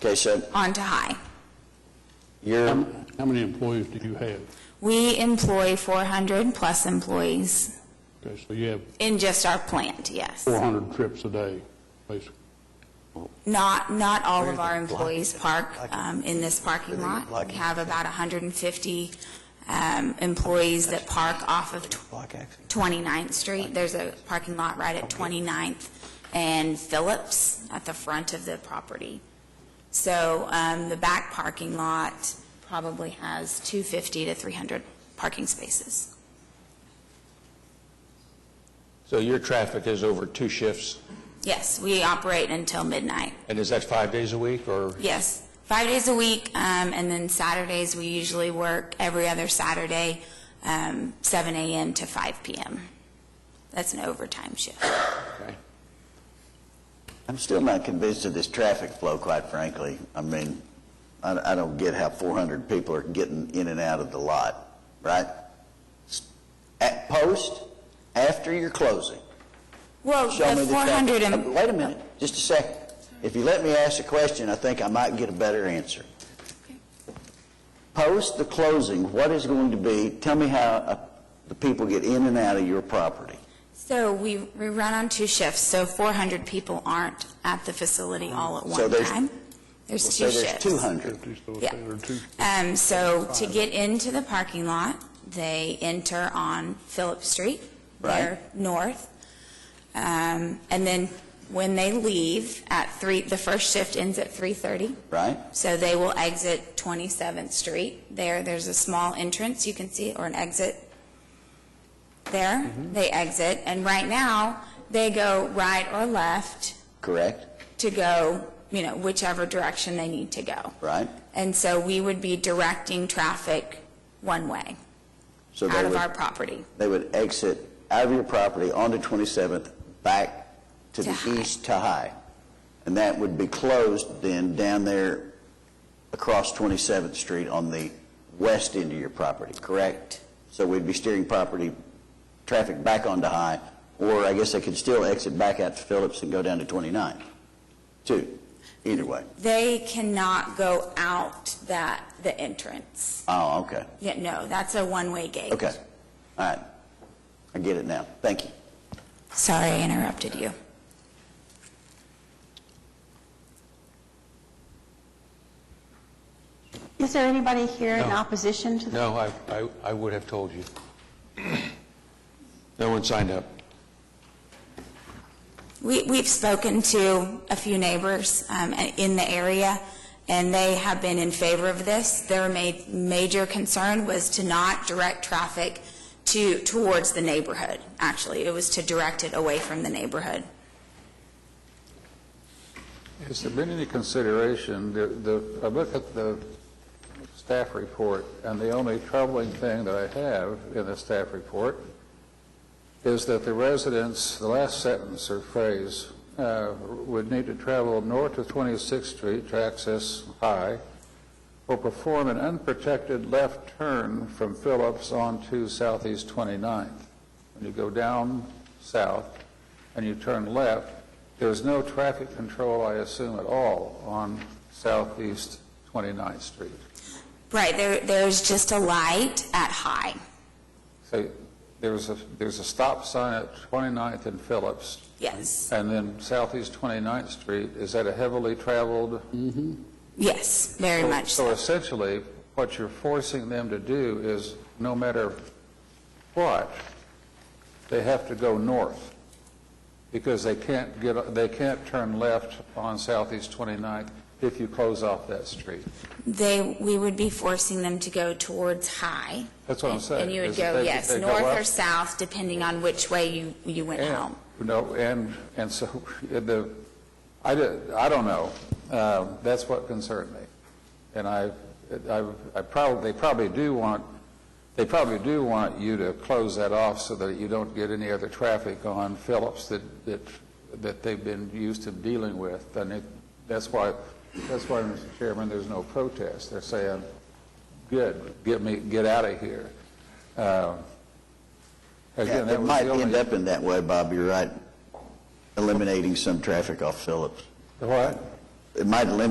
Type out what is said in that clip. Okay, so on to High. you're, How how many employees do you have? We employ 400-plus employees Okay, so you have in just our plant, yes. 400 trips a day, basically. Not, not all Where of the our block- employees park like- um, in this parking Where the lot. block- We have about 150 um, employees that park off of tw- Block action. 29th Street. There's a parking lot right at 29th and Phillips at the front of the property. So um, the back parking lot probably has 250 to 300 parking spaces. So your traffic is over two shifts, Yes, we operate until midnight. and is that five days a week, or? Yes, five days a week, um, and then Saturdays, we usually work every other Saturday, um, 7 a.m. to 5 p.m. That's an overtime shift. I'm still not convinced of this traffic flow, quite frankly. I mean, I, I don't get how 400 people are getting in and out of the lot, right? S- At post, after you're closing, Well, show me the the traffic. 400, Uh, and- Wait a minute, just a second. If you let me ask a question, I think I might get a better answer. Post the closing, what is going to be, tell me how uh, the people get in and out of your property. so we, we run on two shifts, so 400 people aren't at the facility all at So one there's- time. There's Well, two Say shifts. there's 200. 50, so it's Yeah. there are two- Um, so to get into the parking lot, they enter on Phillip Street. They're north. Um, and then when they leave at three, the first shift ends at 3:30. right? So they will exit 27th Street. There, there's a small entrance, you can see, or an exit there. They exit, and right now, they go right or left Correct? to go, you know, whichever direction they need to go. Right? And so we would be directing traffic one way, So they out of would- our property. they would exit out of your property onto 27th, back to To the High. east to High. And that would be closed then down there across 27th Street on the west end of your property, correct? So we'd be steering property, traffic back onto High, or I guess they could still exit back out to Phillips and go down to 29th, too, either way. They cannot go out that, the entrance. Oh, okay, Yeah, no, that's a one-way gate. okay, all right. I get it now, thank you. Sorry I interrupted you. Is there anybody here in No. opposition to the... No, I, I, I would have told you. No one signed up. We, we've spoken to a few neighbors um, a- in the area, and they have been in favor of this. Their ma- major concern was to not direct traffic to, towards the neighborhood, actually. It was to direct it away from the neighborhood. Has there been any consideration, the- the, I look at the staff report, and the only troubling thing that I have in the staff report is that the residents, the last sentence or phrase, uh, would need to travel north of 26th Street to access High, or perform an unprotected left turn from Phillips onto Southeast 29th. When you go down south and you turn left, there's no traffic control, I assume, at all on Southeast 29th Street. Right, there, there's just a light at high. So there's a, there's a stop sign at 29th and Phillips, Yes, and then Southeast 29th Street is at a heavily traveled... yes, very So- much So so. essentially, what you're forcing them to do is, no matter what, they have to go north, because they can't get, they can't turn left on Southeast 29th if you close off that street. They, we would be forcing them to go towards high. That's what I'm And- saying. And you would is that go, they- yes, they go north up- or south, depending on which way you, you went And- home. No, and, and so, the, I, di- I don't know. Um, That's what concerned me. And I, I I probably, they probably do want, they probably do want you to close that off so that you don't get any other traffic on Phillips that, that, that they've been used to dealing with. And it, that's why, that's why, Mr. Chairman, there's no protest. They're saying, good, get me, get out of here. Um, Again, Yeah, that It was the might end only. up in that way, Bob, you're right, eliminating some traffic off Phillips. What? It might eliminate